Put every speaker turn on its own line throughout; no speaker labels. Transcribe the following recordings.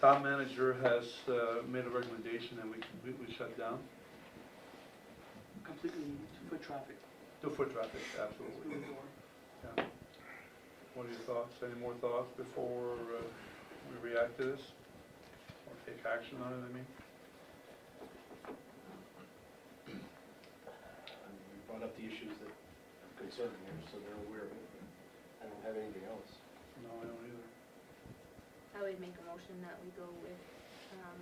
Town manager has uh, made a recommendation that we completely shut down
completely foot traffic
the foot traffic,
through
absolutely.
the door.
yeah. What are your thoughts, any more thoughts before uh, we react to this? Or take action on it, I mean?
I mean, We brought up the issues that are concerned here, so they're aware of it. I don't have anything else.
No, I don't either.
I would make a motion that we go with, um,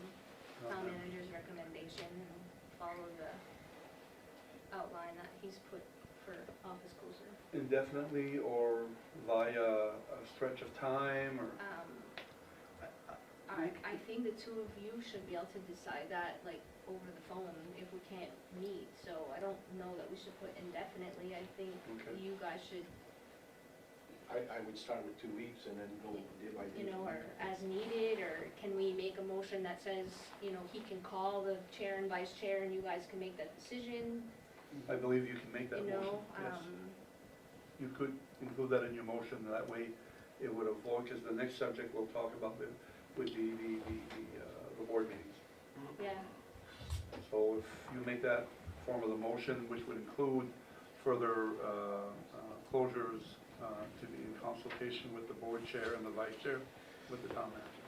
town
No, no.
manager's recommendation and follow the outline that he's put for office closure.
Indefinitely or via a stretch of time or?
Um, I, I
I-
think the two of you should be able to decide that, like, over the phone if we can't meet, so I don't know that we should put indefinitely, I think
Okay.
you guys should,
I, I would start with two weeks and then go day by day.
you know, or as needed, or can we make a motion that says, you know, he can call the chair and vice chair and you guys can make that decision,
I believe you can make that
you
motion,
know?
yes.
um,
You could include that in your motion, that way it would avoid, because the next subject we'll talk about would- would be the, the, the, uh, the board meetings.
um, Yeah,
So if you make that form of the motion, which would include further uh, uh, closures uh, to be in consultation with the board chair and the vice chair, with the town manager.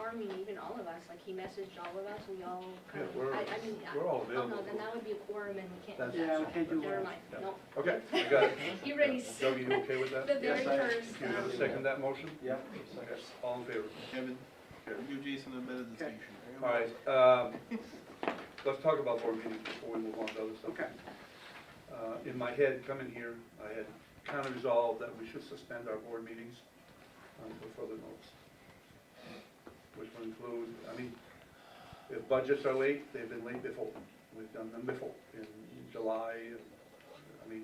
or I mean, even all of us, like, he messaged all of us, we all kind
Yeah, we're-
of, I, I mean, I-
We're all
oh, no,
available.
then that would be a quorum and we can't
That's-
do that.
Yeah, we can't do
Never
that.
mind,
Yeah.
no.
Okay, I got it.
uh,
He already
Doug, you okay with that?
The very
Yes, I-
first,
You
um,
second that motion?
Yeah.
Okay, All in favor?
Kevin,
Okay.
you Jason a minute distinction.
All right, um, let's talk about board meetings before we move on to other stuff.
Okay.
Uh, In my head, coming here, I had kind of resolved that we should suspend our board meetings until further notice. Which would include, I mean, if budgets are late, they've been late before. We've done them before, in July, and, I mean,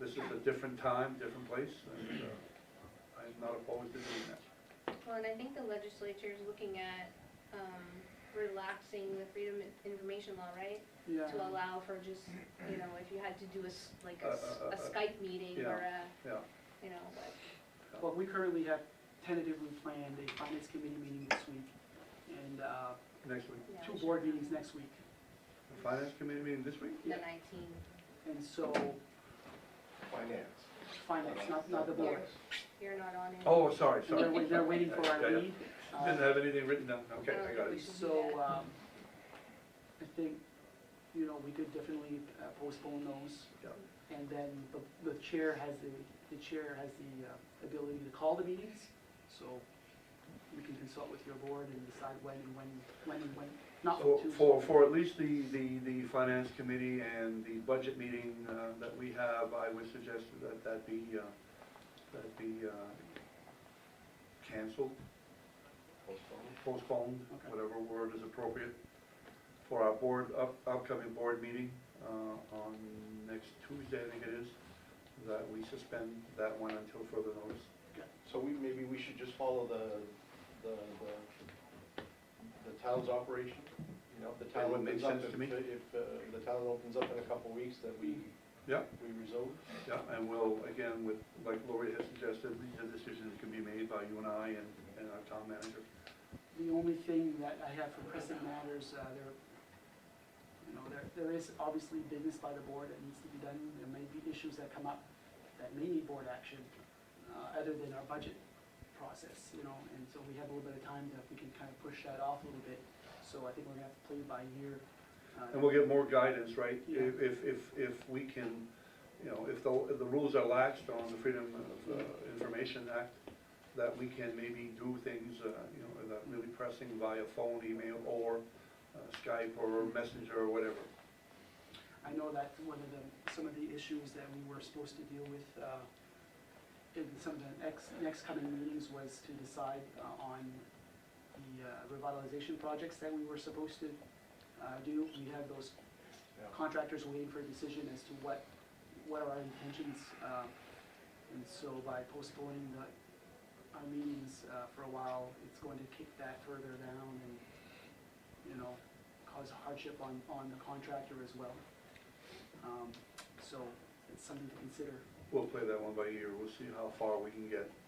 this is a different time, different place, and uh, I'm not opposed to doing that.
Well, and I think the legislature is looking at, um, relaxing the freedom of information law, right?
Yeah.
To allow for just, you know, if you had to do a, s- like a, s-
Uh, uh,
a
uh, uh,
Skype meeting or a,
Yeah,
you know, but,
Well, we currently have tentatively planned a finance committee meeting this week and uh,
next week.
yeah.
two board meetings next week.
The Finance committee meeting this week?
The nineteen,
And so,
Finance.
finance, not, not the board.
you're not on it.
Oh, sorry,
And
sorry.
they're, wait- they're waiting for our lead. uh,
Didn't have anything written down, okay,
I don't
I got
think
it.
So, um, I think, you know, we could definitely uh, postpone those.
Yeah.
And then the, the chair has the, the chair has the uh, ability to call the meetings, so we can consult with your board and decide when and when, when and when, not
So
to.
for, for at least the, the, the finance committee and the budget meeting uh, that we have, I would suggest that that be, uh, that be uh, canceled,
Postpone.
postponed,
Okay.
whatever word is appropriate, for our board, up- upcoming board meeting uh, on next Tuesday, I think it is, that we suspend that one until further notice.
So we, maybe we should just follow the, the, the, the town's operation, you know, if the town
That would make
opens up.
sense to
if-
me.
If, uh, the town opens up in a couple weeks, that we,
Yeah.
we resolve.
Yeah, and we'll, again, with, like Lori has suggested, these are decisions that can be made by you and I and, and our town manager.
The only thing that I have for present matters, uh, there, you know, there, there is obviously business by the board that needs to be done. There may be issues that come up that may need board action, uh, other than our budget process, you know, and so we have a little bit of time that we can kind of push that off a little bit. So I think we're gonna have to play by ear. uh,
And we'll get more guidance, right?
Yeah.
If, if, if- if we can, you know, if the, if the rules are laxed on the Freedom of uh, Information Act, that we can maybe do things, uh, you know, that really pressing via phone, email, or uh, Skype, or Messenger, or whatever.
I know that one of the, some of the issues that we were supposed to deal with uh, in some of the next, next coming meetings was to decide uh, on the uh, revitalization projects that we were supposed to uh, do. We have those
Yeah.
contractors waiting for a decision as to what, what are our intentions. uh, And so by postponing the, our meetings uh, for a while, it's going to kick that further down and, you know, cause hardship on, on the contractor as well. Um, So it's something to consider.
We'll play that one by ear, we'll see how far we can get